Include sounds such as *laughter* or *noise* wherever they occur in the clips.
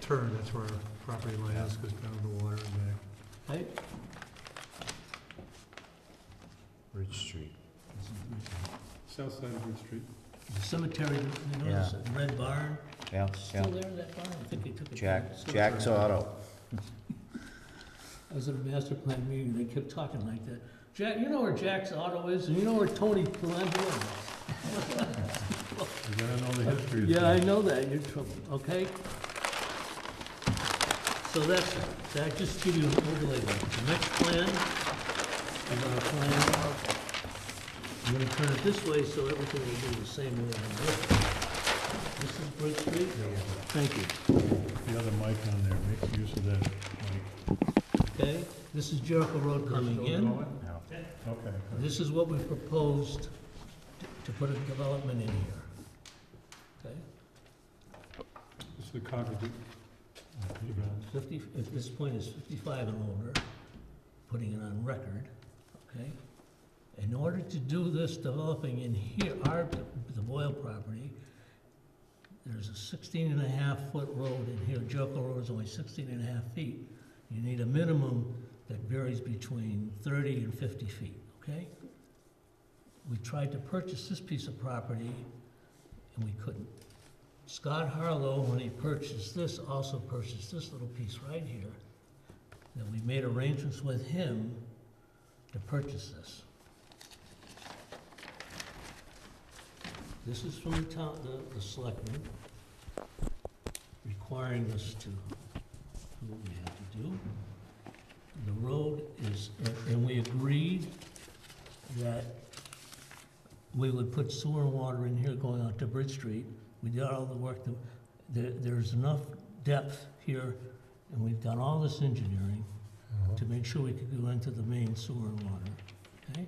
turn, that's where our property line is, goes down to the water and back. I, Ridge Street. South side of Ridge Street. the cemetery, you Yeah. notice, that Red Barn, Yeah, yeah. still there, that barn, I think they took it. down. Jack, It's still Jack's uh, there. Auto. I was at a master plan meeting, they kept talking like that. Jack, you know where Jack's Auto is, and you know where Tony Palumbo is? You gotta know the history. of Yeah, I things. know that, you're trouble, okay? So that's, that just give you an overlay there. The next plan, I'm gonna plan, I'm gonna turn it this way so everything will be the same way on this. This is Bridge Street? Thank you. The other mic on there, make use of that mic. Okay, this is Jericho Road coming in. No. Okay. good. This is what we proposed t- to put a development in here. Okay, It's the congregate. fifty, if this point is fifty-five and older, putting it on record, okay? In order to do this developing in here, our, the Boyle property, there's a sixteen and a half foot road in here, Jericho Road is only sixteen and a half feet. You need a minimum that varies between thirty and fifty feet, okay? We tried to purchase this piece of property, and we couldn't. Scott Harlow, when he purchased this, also purchased this little piece right here, that we made arrangements with him to purchase this. This is from the town, the, the selectmen, requiring us to do what we have to do. The road is, and- and we agreed that we would put sewer and water in here going out to Bridge Street. We did all the work, that- there, there's enough depth here, and we've done all this engineering to make sure we could go into the main sewer and water, okay?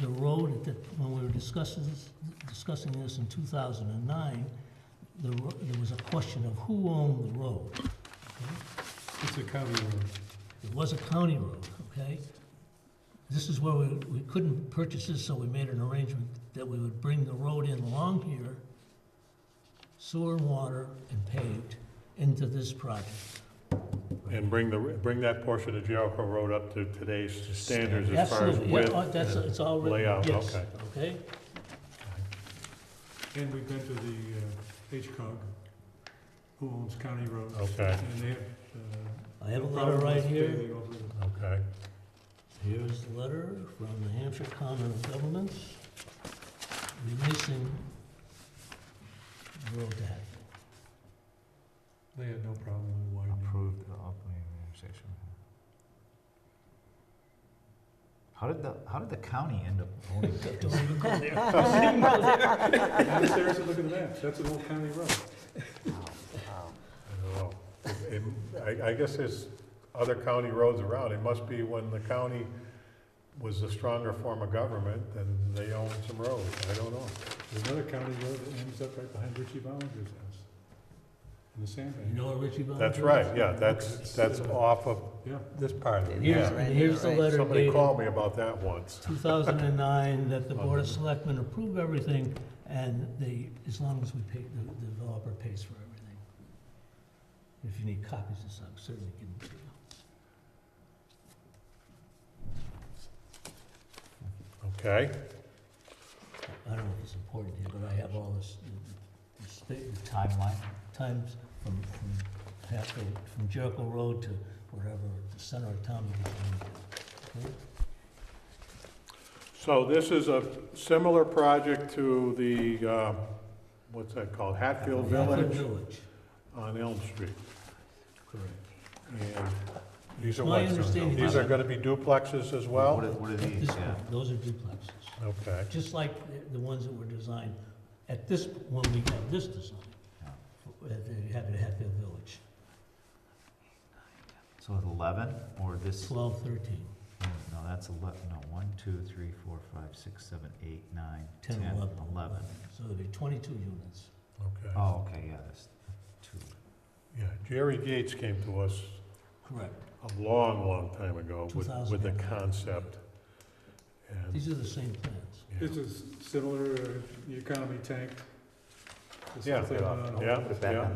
The road, at the- when we were discussing this, discussing this in two thousand and nine, the, ro- there was a question of who owned the road, okay? It's a county road. It was a county road, okay? This is where we, we couldn't purchase this, so we made an arrangement that we would bring the road in along here, sewer and water and paved into this project. And bring the, bring that portion of Jericho Road up to today's standards as far as Absolutely, yeah, width. oh, that's, it's all written, layout, yes, okay. okay? And we've been to the uh, HCOG, who owns county roads. Okay. And they have. uh, I have a no letter problem right with here. paving over the- Okay, Here's the letter from the Hampshire Common of Governments releasing the road to Hatfield. They had no problem *laughs* with widening. Approved the opening intersection. How did the, how did the county end up owning Don't this? even go there. Don't even *laughs* go there. I'm serious, look at that, that's an old county road. I don't know. It- I, I guess there's other county roads around. It must be when the county was the stronger form of government and they owned some roads. I don't know. There's another county road that ends up right behind Richie Ballinger's house, in the You sandbank. know where Richie Valens That's is? right, yeah, that's, that's off of Yeah, this part of it, Here's, yeah. and here's the letter Somebody dated called me about that once. 2009, that the Board of Selectmen approve everything, and they, as long as we pay, the the developer pays for everything. If you need copies of some, certainly give them to you. Okay, I don't know if it's important here, but I have all this, the state, the Timeline? times from, from Hatfield, from Jericho Road to wherever, the center of town. we can do. Okay? so this is a similar project to the, uh, what's that called? Hatfield Hatfield Village Village, on Elm Street. correct. And these are My what, uh, understanding- these are gonna be duplexes as What are, well? what are these, This yeah? one, those are duplexes. Okay, just like the- the ones that were designed at this, when we got this design, uh, they had it at Hatfield Village, So it's eleven, or this? 12, 13, No, that's eleven, no, one, two, three, four, five, six, seven, eight, nine, 10, ten, 11. eleven. So there'd be 22 units. okay. Oh, okay, yeah, that's two. Yeah, Jerry Gates came to us Correct. a long, long time ago with, with the 2000. concept. And, These are the same plans. yeah. This is similar, uh, the economy tank. This Yeah, is, uh, yeah, Put it back yeah. on